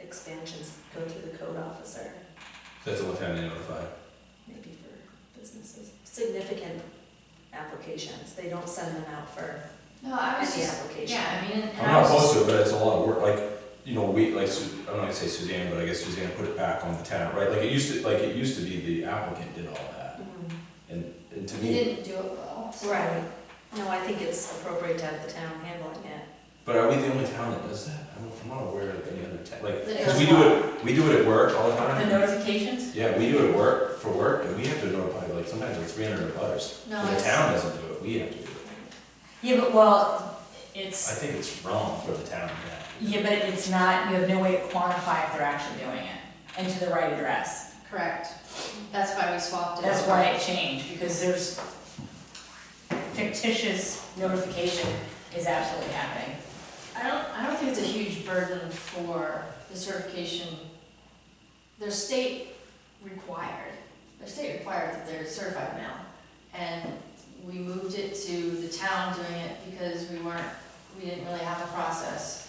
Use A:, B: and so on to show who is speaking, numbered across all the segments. A: expansions go through the code officer,
B: That's the one time they notify.
A: maybe for businesses. Significant applications, they don't send them out for
C: No, I was
A: any
C: just,
A: application.
C: yeah, I mean, and- and
B: I'm
C: I
B: not
C: was
B: opposed
C: just,
B: to it, but it's a lot of work, like, you know, we, like, Su- I don't wanna say Suzanne, but I guess Suzanne put it back on the tenant, right? Like, it used to, like, it used to be the applicant did all that,
A: Mhm.
B: and to
C: you
B: me,
C: didn't do it well. so-
A: Right, no, I think it's appropriate to have the town handling it.
B: but are we the only town that does that? I don't, I'm not aware of any other town, like,
C: That
B: cause we do
C: does what?
B: it, we do it at work all the
D: The
B: time.
D: notifications?
B: Yeah, we do it at work, for work, and we have to notify, like, sometimes like three hundred butters.
C: No,
B: The
C: it's-
B: town doesn't do it, we have to do it.
D: Yeah, but well,
B: I
D: it's,
B: think it's wrong for the town, yeah.
D: yeah, but it's not, you have no way to quantify if they're actually doing it and to the right address.
C: Correct. That's why we swapped it.
D: That's
C: over.
D: why it changed, because there's fictitious notification is absolutely happening.
C: I don't, I don't think it's a huge burden for the certification. They're state required, they're state required that they're certified mail. And we moved it to the town doing it because we weren't, we didn't really have a process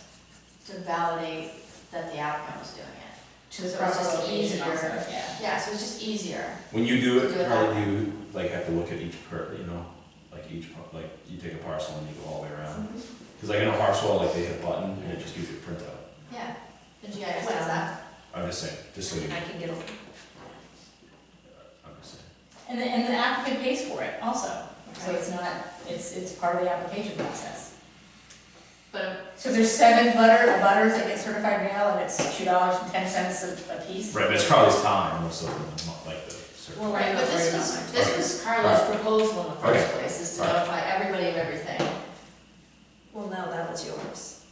C: to validate that the applicant was doing it.
D: To the
C: So it's
D: proper
C: just
D: location also,
C: easier.
D: yeah.
C: Yeah, so it's just easier.
B: When you do
C: Do it
B: it,
C: that
B: probably you, like, have to look at each per, you know, like each, par- like, you take a parcel and you go all the way around.
C: Mm-hmm.
B: Cause like in a parcel, like, they hit a button and it just gives you a printout.
C: Yeah, the GIS does
A: Well,
C: that.
B: I'm just saying, just so you,
A: I can get a
B: I'm just saying.
D: And the, and the applicant pays for it also, so it's not, it's, it's part of the application process.
C: But
D: So there's seven butter, butters that get certified mail, and it's two dollars and ten cents a a piece.
B: Right, but it's probably his time, most of them, not like the certain.
D: Well,
C: Right, but this was, this was Carla's proposal in the first place, is to
B: Alright.
C: notify everybody of everything.
A: Well, no, that was yours.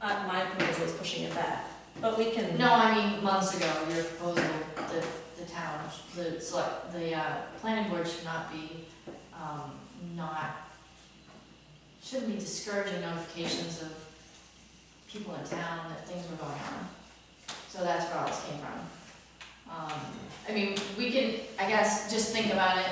A: Uh, my proposal is pushing it back, but we can.
C: No, I mean, months ago, your proposal, the, the town, the select, the, uh, planning board should not be, um, not, shouldn't be discouraging notifications of people in town that things were going on. So that's where all this came from. Um, I mean, we can, I guess, just think about it.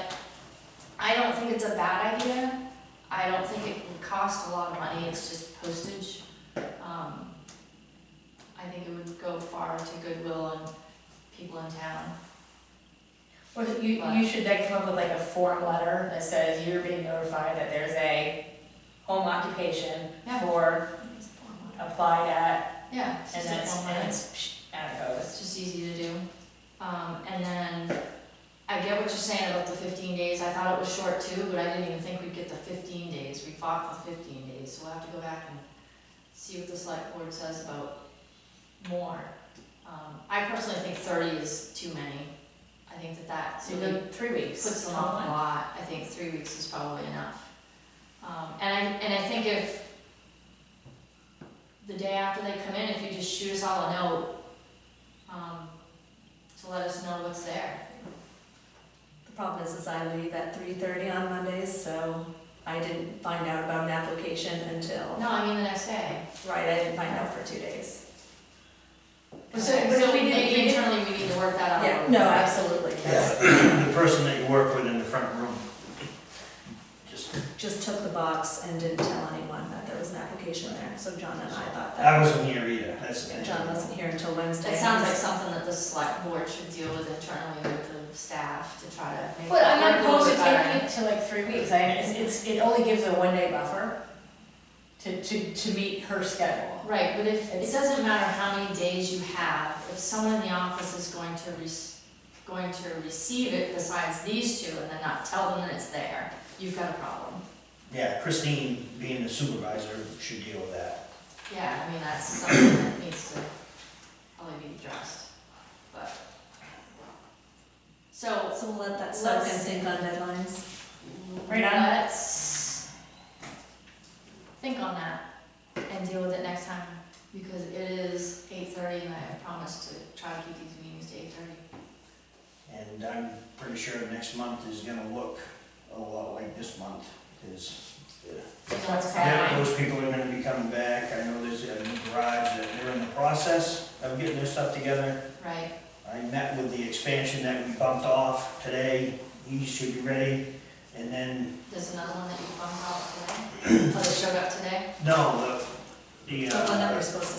C: I don't think it's a bad idea. I don't think it would cost a lot of money, it's just postage. Um, I think it would go far to goodwill and people in town.
D: Well, you, you should then come up with like a form letter that says you're being notified that there's a home occupation
C: Yeah.
D: for applied at,
C: Yeah, it's
D: and
C: just a
D: that's,
C: form
D: and
C: letter.
D: it's, psh, out it goes.
C: It's just easy to do. Um, and then, I get what you're saying about the fifteen days, I thought it was short too, but I didn't even think we'd get the fifteen days, we fought for fifteen days, so we'll have to go back and see what the select board says about more. Um, I personally think thirty is too many, I think that that.
D: So you go three weeks.
C: puts them
D: Home
C: off a
D: one.
C: lot, I think three weeks is probably enough. Um, and I, and I think if the day after they come in, if you just shoot us all a note, um, to let us know what's there.
A: The problem is, is I leave at three thirty on Mondays, so I didn't find out about an application until,
C: No, I mean the next day.
A: right, I didn't find out for two days.
D: So-
C: Okay,
D: but if
C: So
D: we didn't- we
C: maybe
D: didn't-
C: internally, we need to work that out. a
A: Yeah,
C: little
A: no,
C: bit.
A: absolutely, that's,
E: The person that you work with in the front room. Just,
A: just took the box and didn't tell anyone that there was an application there, so John and I thought
E: I
A: that.
E: wasn't here either, that's the thing.
A: John wasn't here until Wednesday.
C: That sounds like something that the select board should deal with internally with the staff to try to make.
D: But I'm not
C: work a little
D: opposed to
C: bit better.
D: taking it to like three weeks, I, it's, it's, it only gives a one day buffer to, to, to meet her schedule.
C: Right, but if, it
D: It's-
C: doesn't matter how many days you have, if someone in the office is going to rec going to receive it besides these two and then not tell them that it's there, you've got a problem.
E: Yeah, Christine, being the supervisor, should deal with that.
C: Yeah, I mean, that's something that needs to probably be addressed, but. So,
A: So we'll let that soak and
C: Let's-
A: think on deadlines.
D: Right on.
C: let's think on that and deal with it next time, because it is eight thirty and I have promised to try to keep these meetings to eight thirty.
E: And I'm pretty sure next month is gonna look a lot like this month, because
C: You know what's
E: yeah,
C: happening.
E: those people are gonna be coming back. I know there's a new garage that they're in the process of getting their stuff together.
C: Right,
E: I met with the expansion that we bumped off today. He should be ready. And then,
C: there's another one that you found out today, oh, they showed up today?
E: no, the, the.
A: The
E: uh,
A: one that we're supposed to see